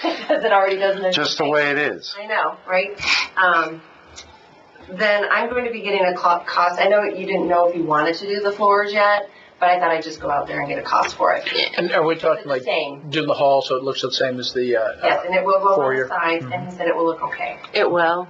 because it already doesn't exist. just the way it is. I know, right? Um, then I'm going to be getting a co- cost, I know you didn't know if you wanted to do the floors yet, but I thought I'd just go out there and get a cost for it. And are we It's talking the like same, do the hall so it looks the same as the, uh, yes, uh, and it will go on Foyer. the sides, and he said it will look okay. It will.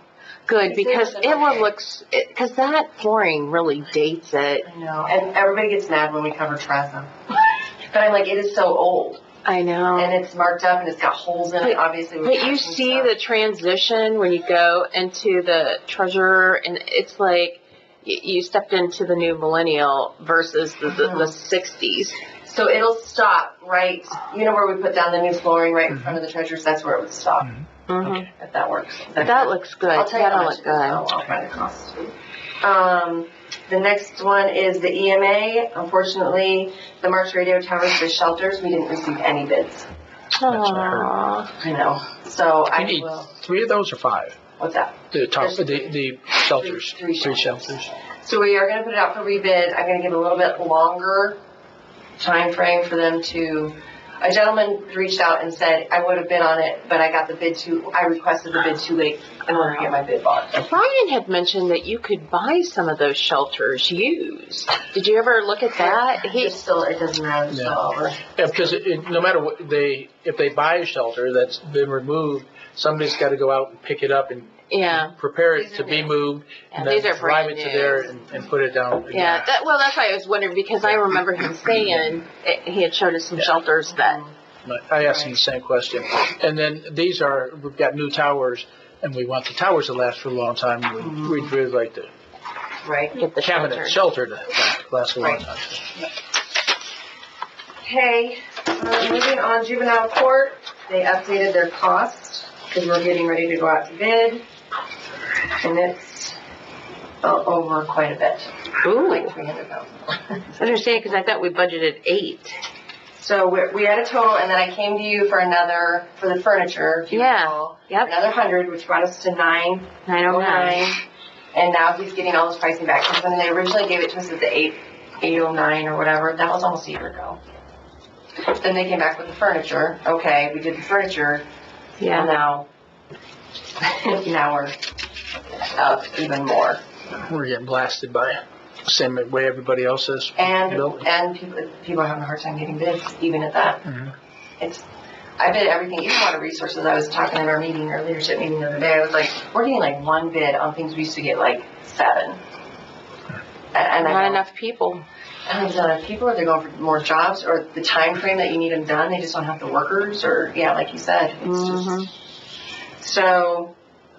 Is Good, it- because it will looks, because that flooring really dates it. I know, and everybody gets mad when we cover Trezza. But I'm like, it is so old, I know. and it's marked up, and it's got holes in it, obviously. we're But you patching see stuff. the transition when you go into the treasurer and it's like y- you stepped into the new millennial versus the, the, Uh-huh. the sixties. So it'll stop right, you know where we put down the new flooring right in front of the treasures, that's where it would stop, Mhm. if that works. That looks good. Mm-hmm. I'll tell you how That'll much it look is, though. good. I'll find the cost. Um, the next one is the EMA. Unfortunately, the March radio towers for shelters, we didn't receive any bids. what I heard. Aw. I know. So I you need will, three of those or five? what's that? The top, There's the, the shelters, three three shelters. shelters. So we are gonna put it out for rebid. I'm gonna give a little bit longer time frame for them to, a gentleman reached out and said, I would have bid on it, but I got the bid too, I requested the bid too late in order to get my bid bought. Brian had mentioned that you could buy some of those shelters used. Did you ever look at that? He, It's still, it doesn't matter, it's still over. Yeah, because it, it, no matter what, they, if they buy a shelter that's been removed, somebody's gotta go out and pick it up and yeah, prepare it These to are be new. moved. Yeah, And these then are drive brand it to new. there and, and put it down. again. yeah. That, well, that's why I was wondering because I remember him saying it, he had showed us some shelters that But I asked him the same question. And then these are, we've got new towers and we want the towers to last for a long time. We- We'd really like the Right. get the cabinet shelters. shelter to last a long time. Okay, uh, moving on juvenile court, they updated their cost, because we're getting ready to go out to bid. And it's uh, over quite a bit, Ooh. like three hundred thousand. I understand, because I thought we budgeted eight. So we're, we had a total, and then I came to you for another, for the furniture, if you Yeah. recall. Yep, Another hundred, which brought us to nine nine oh oh nine. nine. And now he's getting all his pricing back, because when they originally gave it to us at the eight, eight oh nine or whatever, that was almost a year ago. Then they came back with the furniture, okay, we did the furniture, And Yeah, now, now we're up even more. We're getting blasted by it. Same way everybody else is. And, Nope. and people, people are having a hard time getting bids, even at that. Mhm. It's, I bid everything, even water resources, I was talking at our meeting, our leadership meeting the other day, I was like, we're getting like one bid on things we used to get like seven. A- And I not know, enough people. and I know, people are, they're going for more jobs, or the time frame that you need them done, they just don't have the workers, or, yeah, like you said, it's just. Mhm. So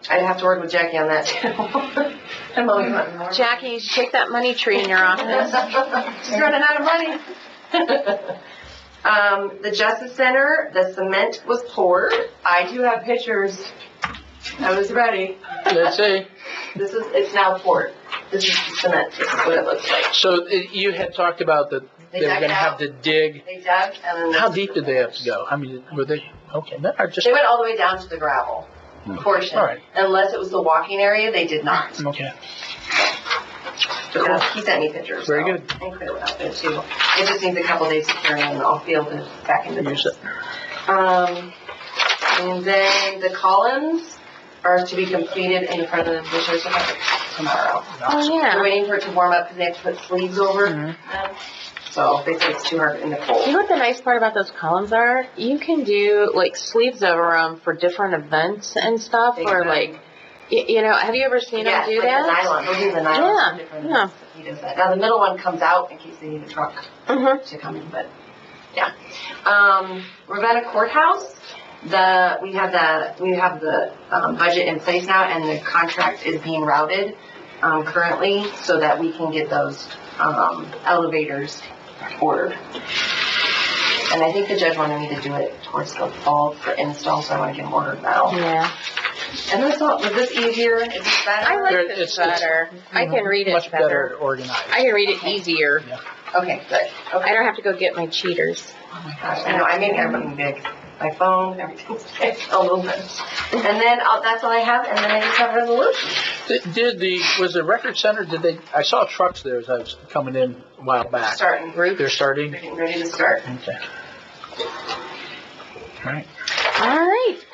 I'd have to work with Jackie on that too. I'm always wanting more. Jackie, shake that money tree in your office. She's running out of money. Um, the Justice Center, the cement was poured. I do have pictures. I was ready. Let's see. This is, it's now poured. This is the cement. This is what it looks like. So uh, you had talked about that They they were dug gonna out. have to dig. They dug and then. How deep did they have to go? I mean, were they, okay, that are just, They went all the way down to the gravel portion. All right. Unless it was the walking area, they did not. okay. Uh, He sent me pictures. Very so- good. And Claire went out there too. It just needs a couple days to clear and I'll field it back into Use the. it. Um, and then the columns are to be completed in front of the sheriff's department tomorrow. Oh, We're yeah. waiting for it to warm up because they have to put sleeves over Mm. them. So they said it's too hard in the You cold. know what the nice part about those columns are? You can do like sleeves over them for different events and stuff, They or can. like, y- you know, have you ever seen them Yes, do like the that? nylon, they'll do the nylon. Yeah, some different yeah. ones. He does that. Now the middle one comes out in case they need a truck. Mhm. to come in, but yeah. Um, Ravenna Courthouse, the, we have the, we have the, um, budget in place now and the contract is being routed, um, currently so that we can get those, um, elevators ordered. And I think the judge wanted me to do it towards the fall for install, so I wanna get them ordered now. Yeah. And this, all- was this easier? Is this better? I There- like this it's- it's, better. I can read Much it better. better organized. I can read it easier. Okay, good. I don't have to go get my cheaters. Gosh, I know, I made everything big. My phone, everything's big, a little bit. And then, uh, that's all I have, and then I just have resolution. Did did the, was the record center, did they, I saw trucks there as I was coming in a while back. Starting, we're They're starting? getting ready to start. Okay. All right. All right.